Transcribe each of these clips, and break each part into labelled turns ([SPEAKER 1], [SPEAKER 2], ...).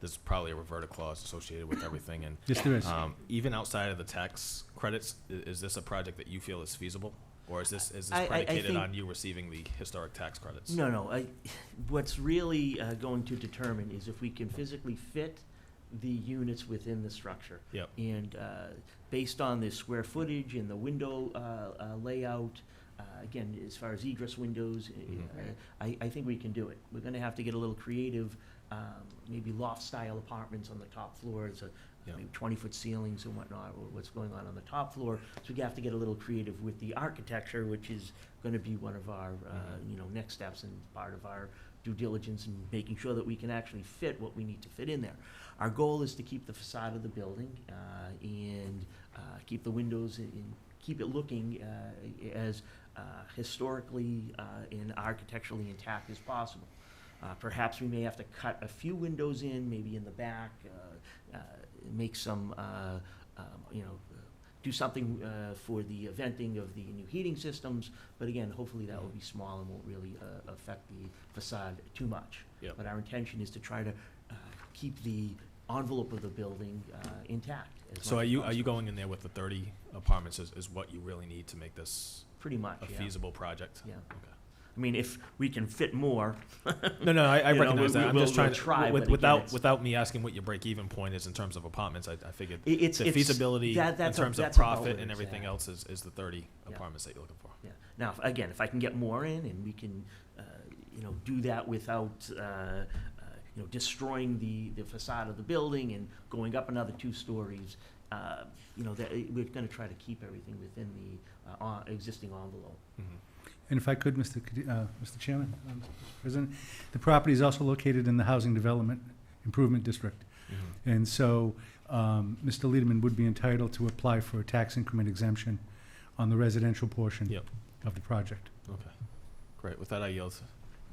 [SPEAKER 1] there's probably a reverter clause associated with everything. And
[SPEAKER 2] Yes, there is.
[SPEAKER 1] um, even outside of the tax credits, i- is this a project that you feel is feasible? Or is this, is
[SPEAKER 3] I- I-
[SPEAKER 1] this
[SPEAKER 3] I
[SPEAKER 1] predicated
[SPEAKER 3] think-
[SPEAKER 1] on you receiving the historic tax credits?
[SPEAKER 3] No, no, I, what's really uh, going to determine is if we can physically fit the units within the structure.
[SPEAKER 1] Yep.
[SPEAKER 3] And uh, based on the square footage and the window uh, uh, layout, uh, again, as far as egress windows, uh,
[SPEAKER 1] Mhm.
[SPEAKER 3] uh, I, I think we can do it. We're gonna have to get a little creative, um, maybe loft-style apartments on the top floors, uh,
[SPEAKER 1] Yeah.
[SPEAKER 3] maybe twenty-foot ceilings and whatnot, or what's going on on the top floor. So we have to get a little creative with the architecture, which is gonna be one of our, uh,
[SPEAKER 1] Mhm.
[SPEAKER 3] you know, next steps and part of our due diligence and making sure that we can actually fit what we need to fit in there. Our goal is to keep the facade of the building uh, and uh, keep the windows and- and keep it looking uh, as uh, historically uh, and architecturally intact as possible. Uh, Perhaps we may have to cut a few windows in, maybe in the back, uh, uh, make some, uh, um, you know, do something uh, for the venting of the new heating systems, but again, hopefully that will
[SPEAKER 1] Mm-hmm.
[SPEAKER 3] be small and won't really uh, affect the facade too much.
[SPEAKER 1] Yep.
[SPEAKER 3] But our intention is to try to uh, keep the envelope of the building uh, intact. as
[SPEAKER 1] So
[SPEAKER 3] much
[SPEAKER 1] are
[SPEAKER 3] as
[SPEAKER 1] you, are you
[SPEAKER 3] possible.
[SPEAKER 1] going in there with the thirty apartments is, is what you really need to make this
[SPEAKER 3] Pretty much,
[SPEAKER 1] a
[SPEAKER 3] yeah.
[SPEAKER 1] feasible project?
[SPEAKER 3] Yeah.
[SPEAKER 1] Okay.
[SPEAKER 3] I mean, if we can fit more,
[SPEAKER 1] No, no, I, I
[SPEAKER 3] You know,
[SPEAKER 1] recognize
[SPEAKER 3] we-
[SPEAKER 1] that.
[SPEAKER 3] we
[SPEAKER 1] I'm
[SPEAKER 3] will-
[SPEAKER 1] just trying
[SPEAKER 3] we'll
[SPEAKER 1] to,
[SPEAKER 3] try,
[SPEAKER 1] with-
[SPEAKER 3] but again,
[SPEAKER 1] without,
[SPEAKER 3] it's-
[SPEAKER 1] without me asking what your break-even point is in terms of apartments, I, I figured
[SPEAKER 3] i- it's.
[SPEAKER 1] the
[SPEAKER 3] it's-
[SPEAKER 1] feasibility
[SPEAKER 3] that-
[SPEAKER 1] in
[SPEAKER 3] that's a-
[SPEAKER 1] terms of
[SPEAKER 3] that's about
[SPEAKER 1] profit
[SPEAKER 3] where
[SPEAKER 1] and
[SPEAKER 3] it's
[SPEAKER 1] everything
[SPEAKER 3] at.
[SPEAKER 1] else is, is the thirty
[SPEAKER 3] Yeah.
[SPEAKER 1] apartments that you're looking for.
[SPEAKER 3] Yeah. Now, if- again, if I can get more in and we can, uh, you know, do that without, uh, uh, you know, destroying the, the facade of the building and going up another two stories, uh, you know, that, we're gonna try to keep everything within the, uh, en- existing envelope.
[SPEAKER 1] Mhm.
[SPEAKER 2] And if I could, Mr. Cadi- uh, Mr. Chairman, um, Mr. President, the property is also located in the Housing Development Improvement District.
[SPEAKER 1] Mhm.
[SPEAKER 2] And so um, Mr. Lederman would be entitled to apply for a tax increment exemption on the residential portion
[SPEAKER 1] Yep.
[SPEAKER 2] of the project.
[SPEAKER 1] Okay. Great. With that, I yield.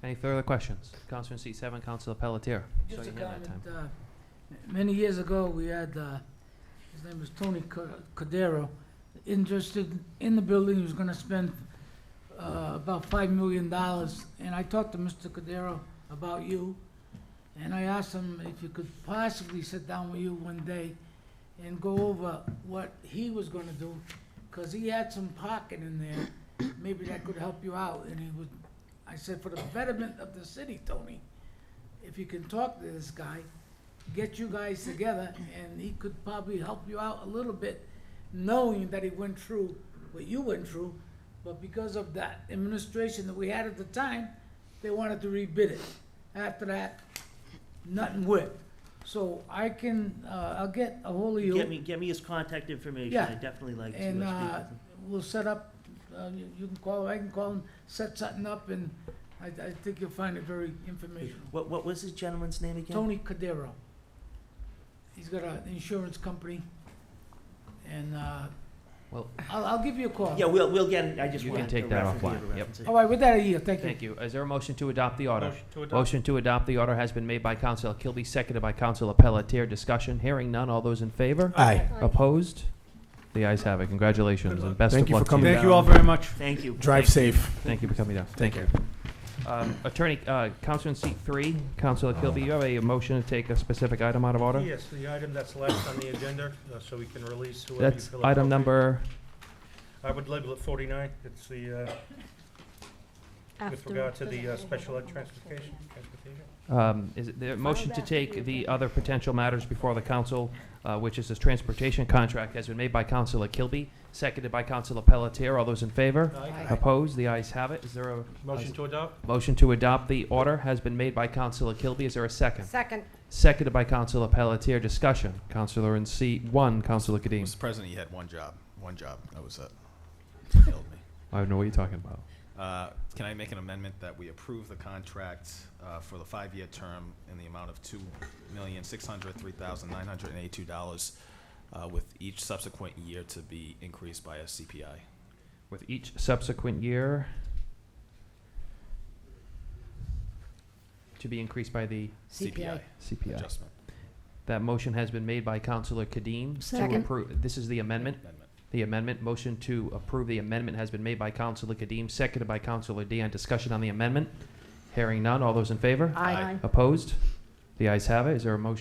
[SPEAKER 4] Any further questions? Counselor in seat seven, Counselor Pelletier. Saw
[SPEAKER 5] Just a
[SPEAKER 4] your hand that
[SPEAKER 5] comment,
[SPEAKER 4] time.
[SPEAKER 5] uh, m- many years ago, we had, uh, his name was Tony Co- Cordero, interested in the building, he was gonna spend uh, about five million dollars, and I talked to Mr. Cordero about you, and I asked him if he could possibly sit down with you one day and go over what he was gonna do, 'cause he had some pocket in there, maybe that could help you out, and he would, I said, for the betterment of the city, Tony, if you can talk to this guy, get you guys together, and he could probably help you out a little bit, knowing that he went through what you went through, but because of that administration that we had at the time, they wanted to rebid it. After that, nothing worked. So I can, uh, I'll get a hold of you.
[SPEAKER 3] Get me, get me his contact information,
[SPEAKER 5] Yeah.
[SPEAKER 3] I definitely like to. uh,
[SPEAKER 5] And
[SPEAKER 3] speak
[SPEAKER 5] uh,
[SPEAKER 3] with him.
[SPEAKER 5] we'll set up, uh, you you can call, I can call him, set something up, and I, I think you'll find it very informational.
[SPEAKER 3] What, what was this gentleman's name again?
[SPEAKER 5] Tony Cadero. He's got an insurance company, and uh,
[SPEAKER 4] Well-
[SPEAKER 5] I'll, I'll give you a call.
[SPEAKER 3] Yeah, we'll, we'll get, I just
[SPEAKER 4] You can
[SPEAKER 3] wanted to
[SPEAKER 4] take that
[SPEAKER 3] reference, be able
[SPEAKER 4] offline.
[SPEAKER 3] to
[SPEAKER 4] Yep.
[SPEAKER 3] reference it.
[SPEAKER 5] All right, with that, I yield. Thank you.
[SPEAKER 4] Thank you. Is there a motion to adopt the order?
[SPEAKER 6] Motion to adopt.
[SPEAKER 4] Motion to adopt the order has been made by Counselor Kilby, seconded by Counselor Pelletier. Discussion, hearing none. All those in favor?
[SPEAKER 6] Aye.
[SPEAKER 4] Opposed? The ayes have it. Congratulations and best
[SPEAKER 6] Thank
[SPEAKER 4] of
[SPEAKER 6] you
[SPEAKER 4] luck
[SPEAKER 6] for
[SPEAKER 4] to
[SPEAKER 6] coming
[SPEAKER 4] you.
[SPEAKER 2] Thank
[SPEAKER 6] down.
[SPEAKER 2] you all very much.
[SPEAKER 3] Thank you.
[SPEAKER 6] Drive safe.
[SPEAKER 4] Thank you for coming down.
[SPEAKER 6] Thank you.
[SPEAKER 4] Um, Attorney, uh, Counselor in seat three, Counselor Kilby, you have a motion to take a specific item out of order?
[SPEAKER 7] Yes, the item that's left on the agenda, uh, so we can release whoever you
[SPEAKER 4] That's
[SPEAKER 7] feel.
[SPEAKER 4] item
[SPEAKER 7] appropriate.
[SPEAKER 4] number,
[SPEAKER 7] I would label it 49. It's the, uh, with regard to the uh, special ed transportation. transportation.
[SPEAKER 4] um, is it the motion to take the other potential matters before the council, uh, which is this transportation contract, has been made by Counselor Kilby, seconded by Counselor Pelletier. All those in favor?
[SPEAKER 5] Aye.
[SPEAKER 4] Opposed? The ayes have it. Is there a
[SPEAKER 7] Motion to adopt?
[SPEAKER 4] motion to adopt the order has been made by Counselor Kilby. Is there a second?
[SPEAKER 8] Second,
[SPEAKER 4] Seconded by Counselor Pelletier. Discussion. Counselor in seat one, Counselor Kadim.
[SPEAKER 1] Mr. President, you had one job. One job. That was it. You Failed me.
[SPEAKER 4] I don't know what you're talking about.
[SPEAKER 1] Uh, Can I make an amendment that we approve the contract uh, for the five-year term in the amount of two million, six hundred, three thousand, nine hundred and eighty-two dollars, uh, with each subsequent year to be increased by a CPI?
[SPEAKER 4] With each subsequent year to be increased by the
[SPEAKER 8] CPI.
[SPEAKER 4] CPI.
[SPEAKER 1] Adjustment.
[SPEAKER 4] That motion has been made by Counselor Kadim. To
[SPEAKER 8] Second.
[SPEAKER 4] approve, this is the amendment,
[SPEAKER 1] Amendment.
[SPEAKER 4] the amendment, motion to approve the amendment has been made by Counselor Kadim, seconded by Counselor Dion. Discussion on the amendment? Hearing none. All those in favor?
[SPEAKER 1] Aye.
[SPEAKER 8] aye.
[SPEAKER 4] Opposed? The ayes have it. Is there a motion